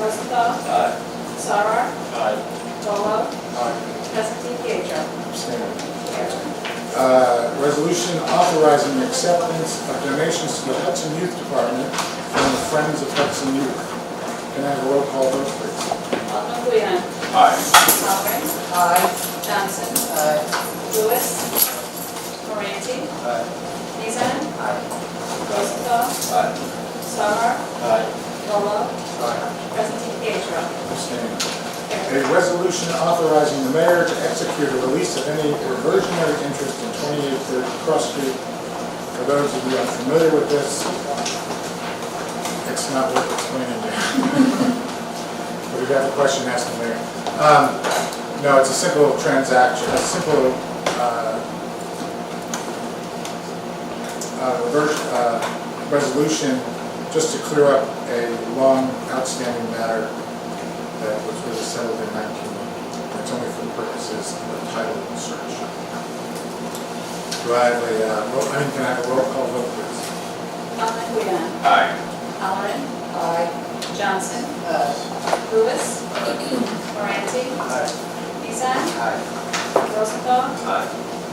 Fox, Aye. Sarar, Aye. Volo, Aye. Presley, Pietro. Abstain. Carried. Uh, Resolution authorizing the acceptance of donations to the Hudson Youth Department from the Friends of Hudson Youth. Can I have a roll call vote, please? Alderman Guian. Aye. Halpern. Aye. Johnson. Aye. Lewis. Moranti. Nizan. Rosenthal. Aye. Sarar. Volo, Presley, Pietro. Abstain. Carried. A resolution authorizing the mayor to execute a release of any reversionary interest in 2830 Cross Street. For those of you unfamiliar with this, it's not worth explaining there. But if you have a question, ask the mayor. Um, No, it's a simple transaction, a simple uh, uh, reverse, uh, resolution just to clear up a long outstanding matter that was really settled in 1990. It's only for the purposes of the title search. Do I have a, uh, roll- I mean, can I have a roll call vote, please? Alderman Guian. Aye. Halpern. Aye. Johnson. Aye. Lewis. Moranti. Aye. Nizan. Aye. Rosenthal. Aye.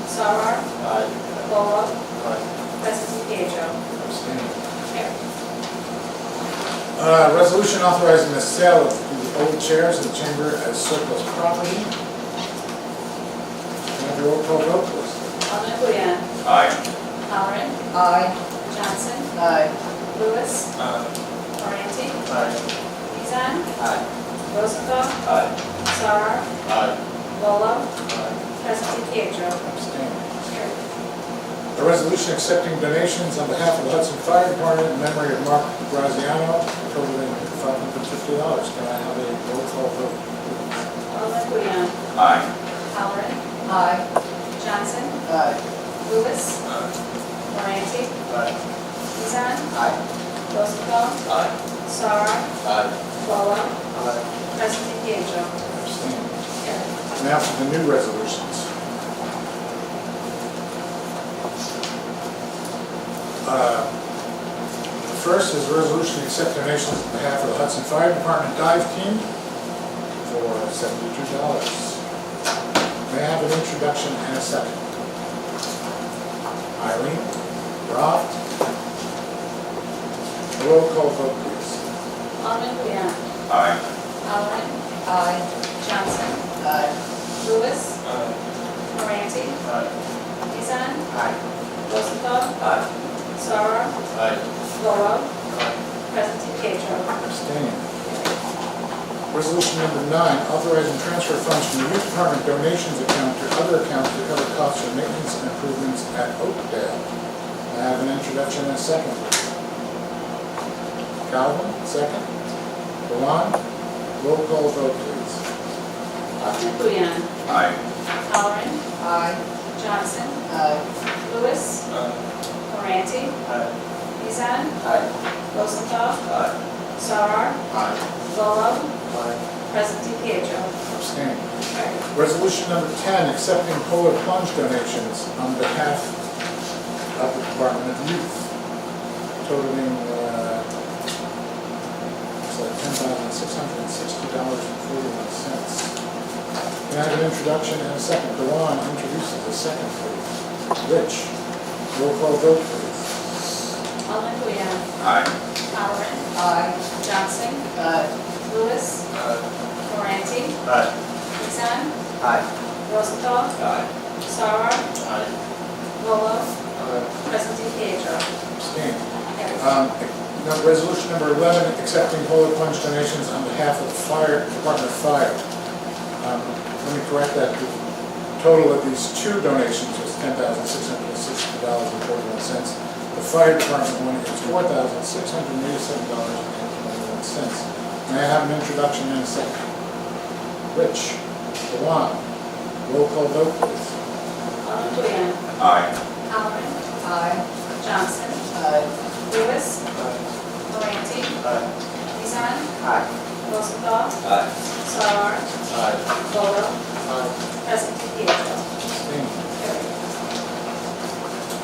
Sarar. Aye. Volo, Aye. Presley, Pietro. Abstain. Carried. Uh, Resolution authorizing the sale of the old chairs in the chamber as surplus property. Can I have a roll call vote, please? Alderman Guian. Aye. Halpern. Aye. Johnson. Aye. Lewis. Aye. Moranti. Aye. Nizan. Aye. Rosenthal. Aye. Sarar. Aye. Volo, Presley, Pietro. Abstain. Carried. A resolution accepting donations on behalf of the Hudson Fire Department in memory of Mark Graziano, totaling five hundred fifty dollars. Can I have a roll call vote? Alderman Guian. Aye. Halpern. Aye. Johnson. Aye. Lewis. Aye. Moranti. Aye. Nizan. Aye. Rosenthal. Aye. Sarar. Aye. Volo, Presley, Pietro. Abstain. Carried. Now for the new resolutions. Uh, The First is a resolution to accept donations on behalf of the Hudson Fire Department Dive Team for seventy-two dollars. May I have an introduction and a second? Irene, Rob? Roll call vote, please. Alderman Guian. Aye. Halpern. Aye. Johnson. Aye. Lewis. Aye. Moranti. Nizan. Aye. Rosenthal. Aye. Sarar. Aye. Volo, Presley, Pietro. Abstain. Resolution number nine, authorizing transfer funds from the youth department donations account to other accounts to cover costs for maintenance and improvements at Oakdale. I have an introduction and a second. Calvin, second. Balon, roll call vote, please. Alderman Guian. Aye. Halpern. Aye. Johnson. Aye. Lewis. Moranti. Aye. Nizan. Aye. Rosenthal. Aye. Sarar. Aye. Volo, Aye. Presley, Pietro. Abstain. Carried. Resolution number 10, accepting polar plunge donations on behalf of the Department of Youth totaling, uh, it's like $10,660.41. Can I have an introduction and a second? Dewan introduces the second, please. Rich, roll call vote, please. Alderman Guian. Aye. Halpern. Aye. Johnson. Aye. Lewis. Aye. Moranti. Aye. Nizan. Aye. Rosenthal. Aye. Sarar. Aye. Volo, Presley, Pietro. Abstain. Carried. Um, now, Resolution number 11, accepting polar plunge donations on behalf of the fire, Department of Fire. Um, Let me correct that, the total of these two donations was $10,660.41. The fire department one is $4,687.91. May I have an introduction and a second? Rich, Dewan, roll call vote, please. Alderman Guian. Aye. Halpern. Aye. Johnson. Aye. Lewis. Moranti. Aye. Nizan. Aye. Rosenthal. Aye. Sarar. Aye. Volo, Presley, Pietro. Abstain. Carried.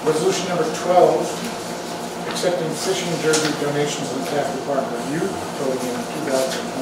Resolution number 12, accepting fishing derby donations in the staff department of youth totaling $2,000.